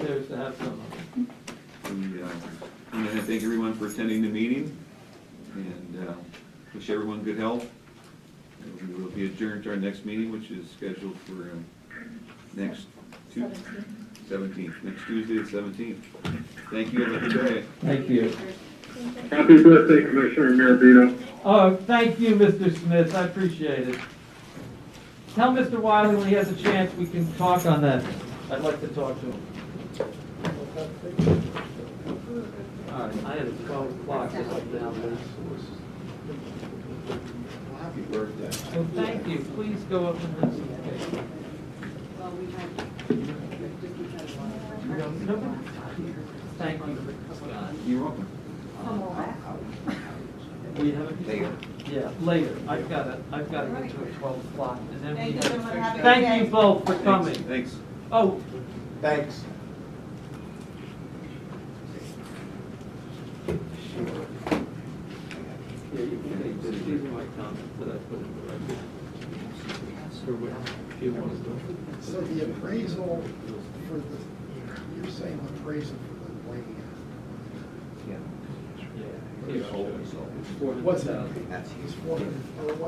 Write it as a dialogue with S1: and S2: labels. S1: incentive to have some.
S2: And, uh, I want to thank everyone for attending the meeting, and uh, wish everyone good health. And We will be adjourned to our next meeting, which is scheduled for um, next Tuesday, 17th, next Tuesday, the 17th. Thank you, have a good day.
S1: Thank you.
S3: Happy birthday, Commissioner Mirabito.
S1: Oh, thank you, Mr. Smith, I appreciate it. Tell Mr. Wiley when he has a chance, we can talk on that. I'd like to talk to him. All right, I had a twelve o'clock just now.
S4: Happy birthday.
S1: So thank you, please go up and listen.
S5: Well, we had, we had a lot of
S1: Nobody- Thank you, Scott.
S2: You're welcome.
S5: Come on.
S1: We have a.
S4: Later.
S1: Yeah, later. I've got to, I've got to get to a twelve o'clock and then we.
S5: Thank you, everyone. Have a good
S1: Thank you
S5: day.
S1: both for
S2: Thanks.
S1: coming.
S2: Thanks.
S1: Oh,
S4: Thanks.
S1: Yeah, you can take this, these are my comments that I put in the record. Or what, if you want to. do
S6: So the appraisal for the, you're saying appraisal for the land,
S1: it. Yeah.
S4: Always, always.
S1: Four hundred
S6: What's it?
S1: thousand.
S6: is four hundred, or what's